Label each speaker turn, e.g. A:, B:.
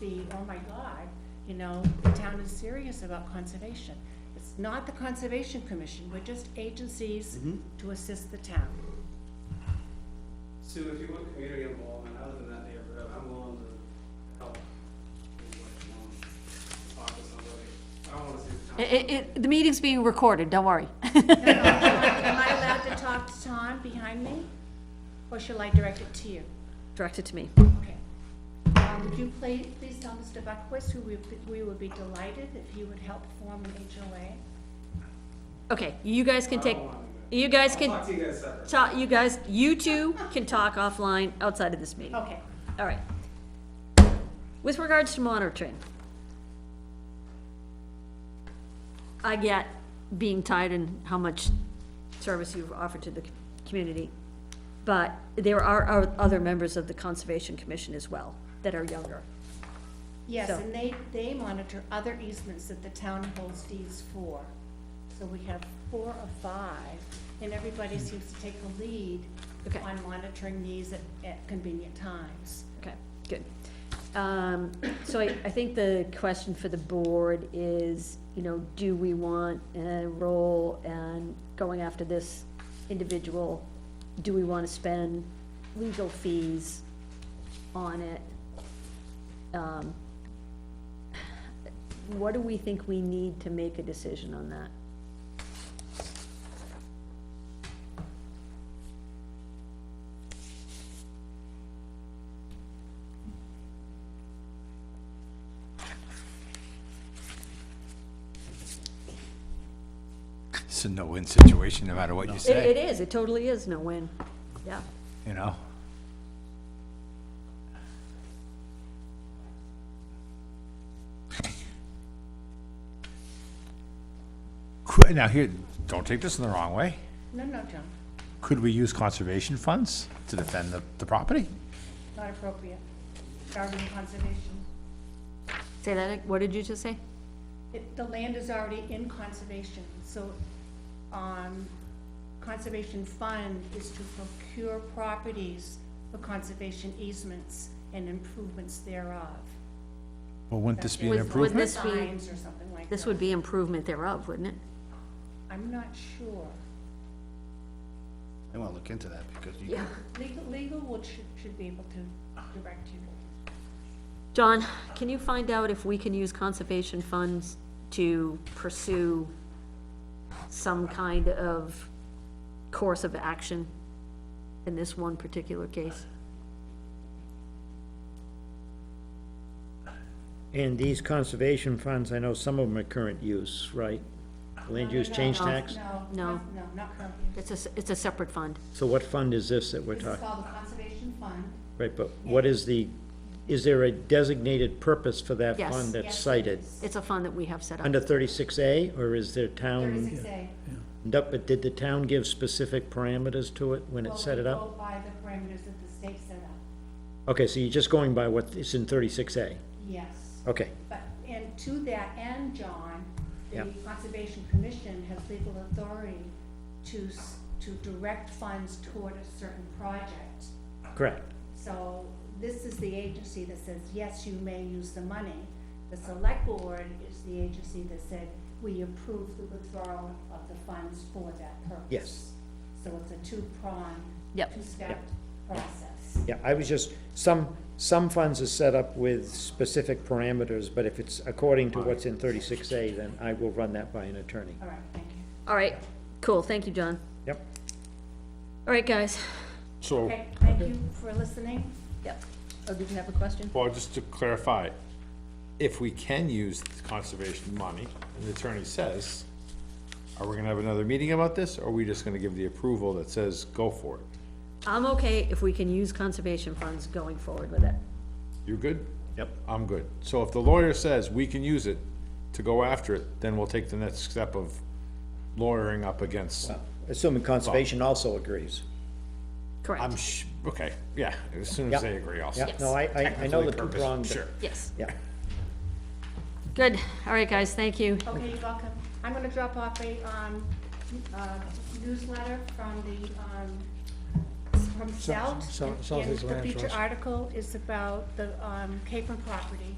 A: see, oh my God, you know, the town is serious about conservation. It's not the Conservation Commission, we're just agencies to assist the town.
B: Sue, if you want community involvement, other than that neighborhood, I'm willing to help. in what you want, Talk to somebody. I don't wanna see the town.
C: It, it, the meeting's being recorded, don't worry.
A: Am I allowed to talk to Tom behind me? Or shall I direct it to you?
C: Direct it to me.
A: Okay. Uh, Would you please, please tell Mr. Buckwitz, who we, we would be delighted if he would help form an HOA?
C: Okay, you guys can
B: I
C: take,
B: don't wanna do that.
C: you guys
B: I'll talk
C: can,
B: to you guys separate.
C: ta- you guys, you two can talk offline outside of this meeting.
A: Okay.
B: Oh.
C: All right. With regards to monitoring, I get being tied in how much service you've offered to the c- community, but there are o- other members of the Conservation Commission as well that are younger.
A: Yes,
C: So-
A: and they, they monitor other easements that the town holds deeds for. So we have four or five, and everybody seems to take the lead
C: Hmm. Okay.
A: on monitoring these at, at convenient times.
C: Okay, good. Um, so I, I think the question for the board is, you know, do we want a role and going after this individual? Do we wanna spend legal fees on it? Um, What do we think we need to make a decision on that?
D: It's a no-win situation, no matter what you
C: It, it
D: say,
C: is, it totally is no win, yeah.
D: you know? Could- Now here, don't take this in the wrong way.
A: No, no, John,
D: Could we use conservation funds to defend the, the property?
A: not appropriate. It's already in conservation.
C: Say that, what did you just say?
A: It, the land is already in conservation, so, um, conservation fund is to procure properties for conservation easements and improvements thereov.
D: Well, wouldn't this be an
C: Would- would
D: improvement?
C: this be-
A: Signs or something like that.
C: This would be improvement thereof, wouldn't it?
A: I'm not sure.
E: I want to look into that because you,
C: Yeah.
A: Legal, legal would, should, should be able to direct you.
C: John, can you find out if we can use conservation funds to pursue some kind of course of action in this one particular case?
F: And these conservation funds, I know some of them are current use, right? Land use change
C: no,
F: tax?
A: No,
C: No.
A: no, no, not currently.
C: It's a, s- it's a separate fund.
F: So what fund is this that we're
A: This is
F: talking,
A: called the conservation fund.
F: right, but what is the, is there a designated purpose for that
C: Yes.
A: Yes,
F: fund that's
A: it
F: cited?
A: is.
C: It's a fund that we have set up.
F: Under thirty-six A, or is there town?
A: Thirty-six A.
F: Nope, but did the town give specific parameters to it when it set it
A: Well, we
F: up?
A: go by the parameters that the state set up,
F: Okay, so you're just going by what is in thirty-six A,
A: yes.
F: okay.
A: But, and to that end, John, the
F: Yeah.
A: Conservation Commission has legal authority to, s- to direct funds toward a certain project.
F: Correct.
A: So this is the agency that says, yes, you may use the money. The select board is the agency that said, we approve the withdrawal of the funds for that purpose.
F: Yes.
A: So it's a two-pronged,
C: Yep.
A: two-step
F: Yep.
A: process.
F: Yeah, I was just, some, some funds are set up with specific parameters, but if it's according to what's in thirty-six A, then I will run that by an attorney.
A: All right, thank you.
C: All right, cool, thank you, John.
F: Yep.
C: All right, guys.
G: So,
A: Okay, thank you for listening.
C: Yep. Oh, did you have a question?
G: well, just to clarify, if we can use conservation money, and the attorney says, are we gonna have another meeting about this, or are we just gonna give the approval that says, go for it?
C: I'm okay if we can use conservation funds going forward with it.
G: You're good?
E: Yep.
G: I'm good. So if the lawyer says we can use it to go after it, then we'll take the next step of lawyering up against,
F: Assuming conservation also agrees.
G: I'm
C: Correct,
G: sh, okay, yeah, as soon as
F: Yep.
G: they agree, I'll.
F: Yeah,
C: Yes.
F: no, I, I, I know
G: Technically
F: the two
G: purpose-
F: pronged.
G: Sure.
C: yes.
F: Yeah.
C: Good, all right, guys, thank you.
A: Okay, you're welcome. I'm gonna drop off a, um, uh, newsletter from the, um, from South.
H: South- Southeast
A: And
H: Land
A: the feature
H: Trust.
A: article is about the, um, Capron property.